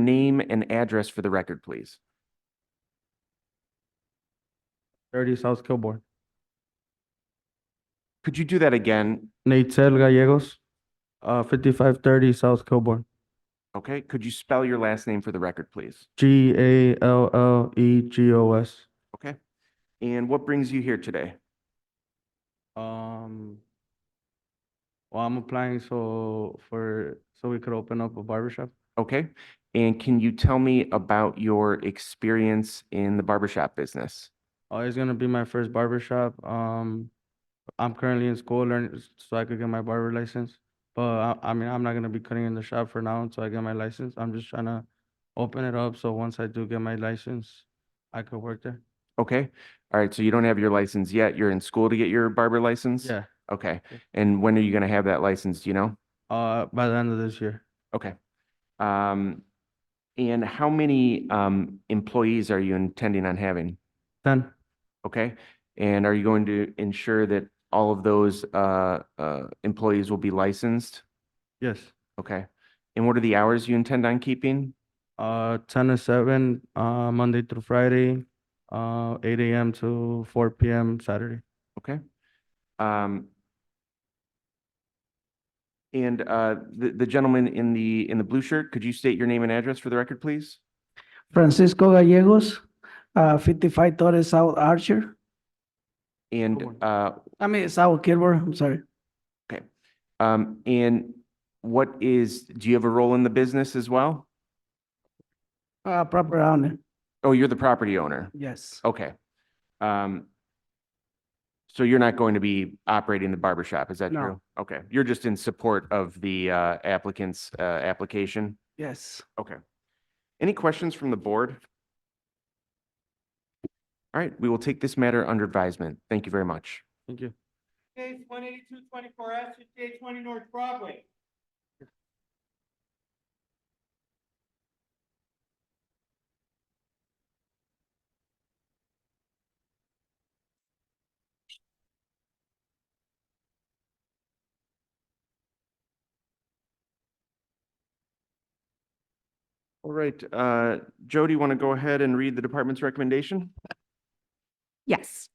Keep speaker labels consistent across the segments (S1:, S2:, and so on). S1: Name and address for the record, please.
S2: thirty South Kilbourne.
S1: Could you do that again?
S2: Natel Gallegos, uh, fifty-five thirty South Kilbourne.
S1: Okay, could you spell your last name for the record, please?
S2: G A L L E G O S.
S1: Okay. And what brings you here today?
S2: Um, well, I'm applying so for, so we could open up a barber shop.
S1: Okay. And can you tell me about your experience in the barbershop business?
S2: Uh, it's gonna be my first barber shop. Um, I'm currently in school learning so I could get my barber license. But I, I mean, I'm not gonna be cutting in the shop for now until I get my license. I'm just trying to open it up. So once I do get my license, I could work there.
S1: Okay. All right. So you don't have your license yet. You're in school to get your barber license?
S2: Yeah.
S1: Okay.
S2: Yeah.
S1: And when are you going to have that license? Do you know?
S2: Uh, by the end of this year.
S1: Okay. Um, and how many, um, employees are you intending on having?
S2: Then,
S1: Okay. And are you going to ensure that all of those, uh, uh, employees will be licensed?
S2: yes,
S1: Okay. And what are the hours you intend on keeping?
S2: uh, ten to seven, uh, Monday through Friday, uh, eight AM to four PM Saturday.
S1: Okay. Um, and, uh, the, the gentleman in the, in the blue shirt, could you state your name and address for the record, please?
S3: Francisco Gallegos, uh, fifty-five Torres South Archer,
S1: And,
S2: morning.
S1: uh,
S3: I mean, South Kilburn, I'm sorry.
S1: um, and what is, do you have a role in the business as well?
S3: Uh, proper owner,
S1: Oh, you're the property owner.
S3: yes,
S1: Okay. Um, so you're not going to be operating the barber shop, is that
S3: No.
S1: true? Okay, you're just in support of the, uh, applicant's, uh, application?
S3: yes.
S1: Okay. Any questions from the board? All right, we will take this matter under advisement. Thank you very much.
S2: Thank you.
S4: Case one eighty-two twenty-four S, fifty-eight twenty North Broadway.
S1: All right, uh, Joe, do you want to go ahead and read the department's recommendation?
S5: Yes.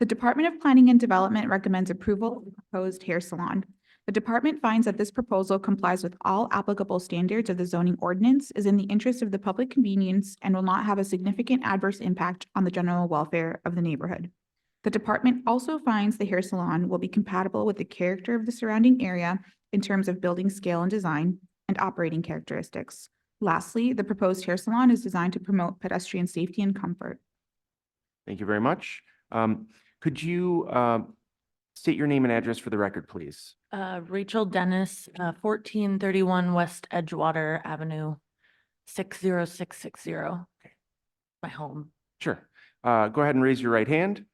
S5: The Department of Planning and Development recommends approval of the proposed hair salon. The department finds that this proposal complies with all applicable standards of the zoning ordinance, is in the interest of the public convenience, and will not have a significant adverse impact on the general welfare of the neighborhood. The department also finds the hair salon will be compatible with the character of the surrounding area in terms of building scale and design and operating characteristics. Lastly, the proposed hair salon is designed to promote pedestrian safety and comfort.
S1: Thank you very much. Um, could you, uh, state your name and address for the record, please?
S6: Uh, Rachel Dennis, uh, fourteen thirty-one West Edgewater Avenue, six zero six six zero. My home.
S1: Sure. Uh, go ahead and raise your right hand.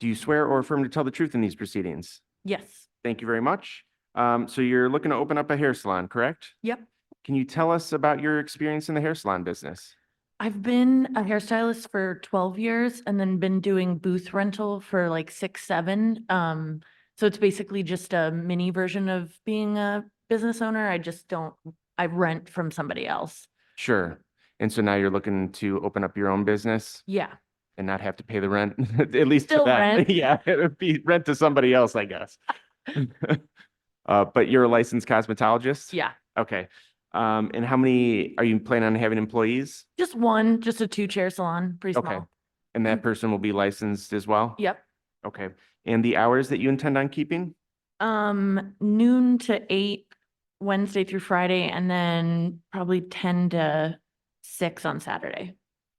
S1: Do you swear or affirm to tell the truth in these proceedings?
S6: Yes.
S1: Thank you very much. Um, so you're looking to open up a hair salon, correct?
S6: Yep.
S1: Can you tell us about your experience in the hair salon business?
S6: I've been a hairstylist for twelve years and then been doing booth rental for like six, seven. Um, so it's basically just a mini version of being a business owner. I just don't, I rent from somebody else.
S1: Sure. And so now you're looking to open up your own business
S6: Yeah.
S1: and not have to pay the rent, at least for
S6: Still
S1: that.
S6: rent.
S1: Yeah, it would be rent to somebody else, I guess. Uh, but you're a licensed cosmetologist?
S6: Yeah.
S1: Okay. Um, and how many, are you planning on having employees?
S6: Just one, just a two-chair salon, pretty
S1: Okay.
S6: small.
S1: And that person will be licensed as well?
S6: Yep.
S1: Okay. And the hours that you intend on keeping?
S6: Um, noon to eight, Wednesday through Friday, and then probably ten to six on Saturday.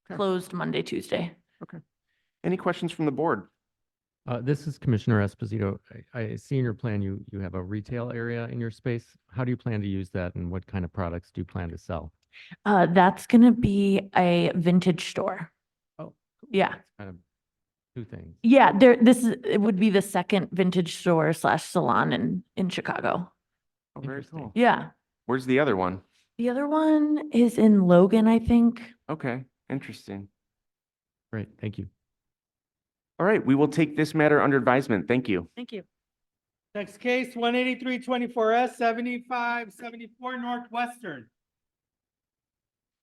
S1: Okay.
S6: Closed Monday, Tuesday.
S1: Any questions from the board?
S7: Uh, this is Commissioner Esposito. I, I see in your plan, you, you have a retail area in your space. How do you plan to use that and what kind of products do you plan to sell?
S6: Uh, that's gonna be a vintage store.
S7: Oh,
S6: Yeah,
S7: Kind of two things.
S6: yeah, there, this is, it would be the second vintage store slash salon in, in Chicago.
S1: Oh, very
S7: Interesting.
S1: cool.
S6: Yeah.
S1: Where's the other one?
S6: The other one is in Logan, I think.
S1: Okay, interesting.
S7: Great, thank you.
S1: All right, we will take this matter under advisement. Thank you.
S6: Thank you.
S4: Next case, one eighty-three twenty-four S, seventy-five seventy-four Northwestern.